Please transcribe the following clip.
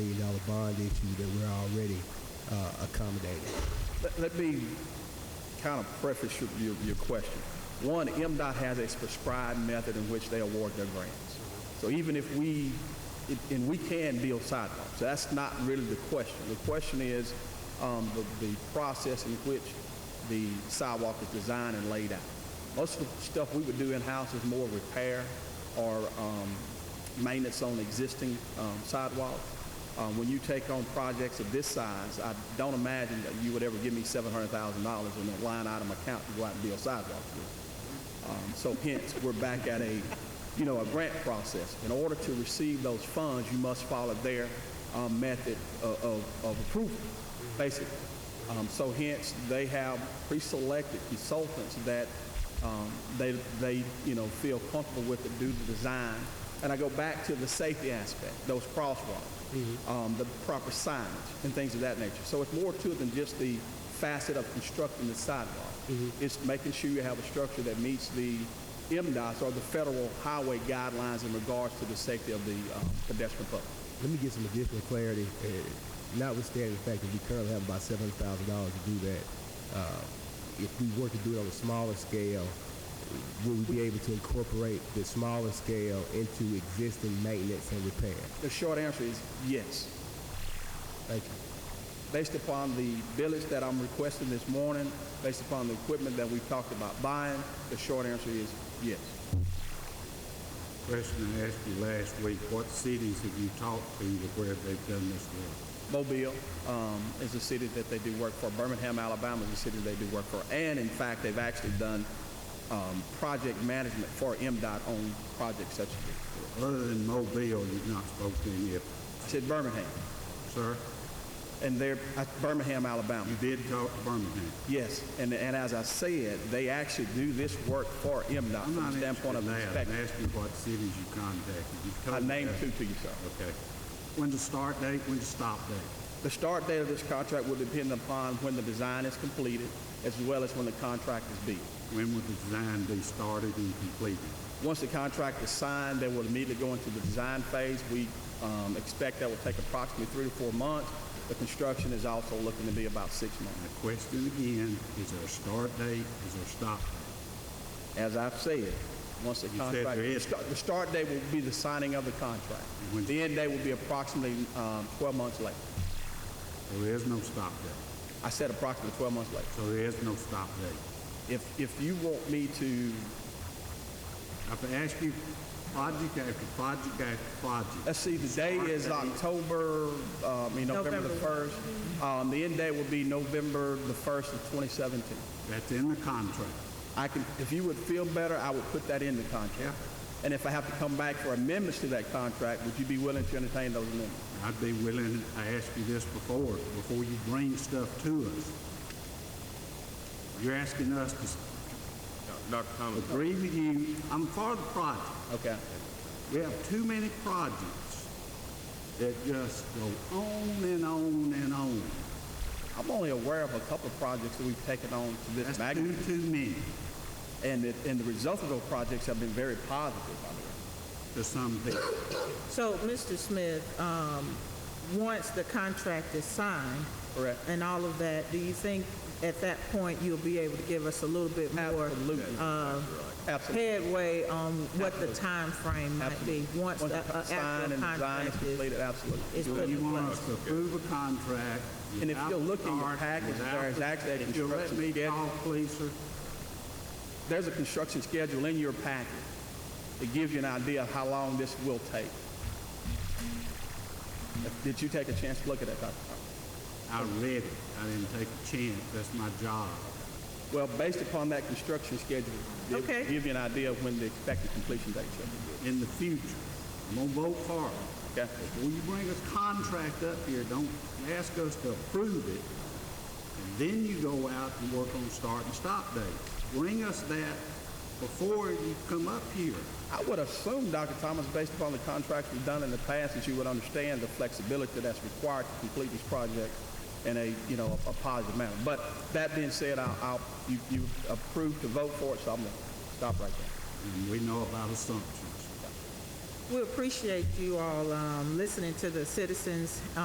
the bond issue that we're already uh, accommodating. Let, let me kind of preface your, your, your question. One, MDOT has a prescribed method in which they award their grants. So even if we, it- and we can build sidewalks, that's not really the question. The question is, um, the, the process in which the sidewalk is designed and laid out. Most of the stuff we would do in-house is more repair or, um, maintenance on existing um, sidewalks. Um, When you take on projects of this size, I don't imagine that you would ever give me $700,000 in a line item account to go out and build sidewalks with. Um, So hence, we're back at a, you know, a grant process. In order to receive those funds, you must follow their um, method of- of of approval, basically. Um, So hence, they have pre-selected consultants that um, they, they, you know, feel comfortable with it due to design. And I go back to the safety aspect, those crosswalks, um, the proper signage, and things of that nature. So it's more to it than just the facet of constructing the sidewalk. Mm-hmm. It's making sure you have a structure that meets the MDOT's or the federal highway guidelines in regards to the safety of the um, pedestrian public. Let me get some additional clarity, uh, notwithstanding the fact that we currently have about seven hundred thousand dollars to do that. Uh, If we were to do it on a smaller scale, will we be able to incorporate the smaller scale into existing maintenance and repair? The short answer is yes. Thank you. based upon the billets that I'm requesting this morning, based upon the equipment that we've talked about buying, the short answer is yes. Question I asked you last week, what cities have you talked to that where they've done this work? Mobile um, is a city that they do work for. Birmingham, Alabama is a city they do work for. And in fact, they've actually done um, project management for MDOT on projects such as this. Other than Mobile, you've not spoken to any of them, I said Birmingham, sir? and they're uh, Birmingham, Alabama. You did talk to Birmingham. Yes, and, and as I said, they actually do this work for MDOT I'm from not the interested standpoint in of that. I'm inspection. asking what cities you contacted. You've told I me named that. two to you, sir. Okay. When's the start date, when's the stop date? The start date of this contract will depend upon when the design is completed, as well as when the contract is bid. When will the design be started and completed? Once the contract is signed, they will immediately go into the design phase. We um, expect that will take approximately three to four months. The construction is also looking to be about six months. My question again, is there a start date, is there a stop date? As I've said, once the You said contract... there the is. start- The start date will be the signing of the contract. When- The end date will be approximately um, 12 months later. There is no stop date, I said approximately 12 months later. so there is no stop date. If, if you want me to, I've asked you project after project after project. let's see, the day is Start date. October, uh, I mean, November the 1st. Um, The end date will be November the 1st of 2017. That's in the contract. I can, if you would feel better, I would put that in the Yeah. contract. And if I have to come back for amendments to that contract, would you be willing to entertain those amendments? I'd be willing, I asked you this before, before you bring stuff to us. You're asking us to s- Dr. Thomas, agree with you, I'm for the project. Okay. We have too many projects that just go on and on and on. I'm only aware of a couple of projects that we've taken on to this That's too, magnitude. too many And it, and the results of those projects have been very positive, by the way. to some people. So, Mr. Smith, um, once the contract is signed Correct. and all of that, do you think at that point you'll be able to give us a little bit more Absolutely. Absolutely. headway on what the time frame might be once Once the the uh, sign and actual design is contract is completed, absolutely. is So put you in want place? us to approve a contract And if without you'll look in your start, package, without there is the- actually a If you'll let construction me schedule. talk, please, sir. There's a construction schedule in your packet that gives you an idea of how long this will take. Did you take a chance to look at that, Dr. Thomas? I read it. I didn't take a chance. That's my job. Well, based upon that construction schedule, it'll Okay. give you an idea of when the expected completion date should In the future, I'm gonna vote for it. be. Okay? Before you bring a contract up here, don't ask us to approve it. And then you go out and work on start and stop date. Bring us that before you come up here. I would assume, Dr. Thomas, based upon the contracts we've done in the past, that you would understand the flexibility that's required to complete this project in a, you know, a positive manner. But that being said, I'll, I'll, you, you approved to vote for it, so I'm gonna stop right there. And we know about assumptions. We appreciate you all um, listening to the citizens'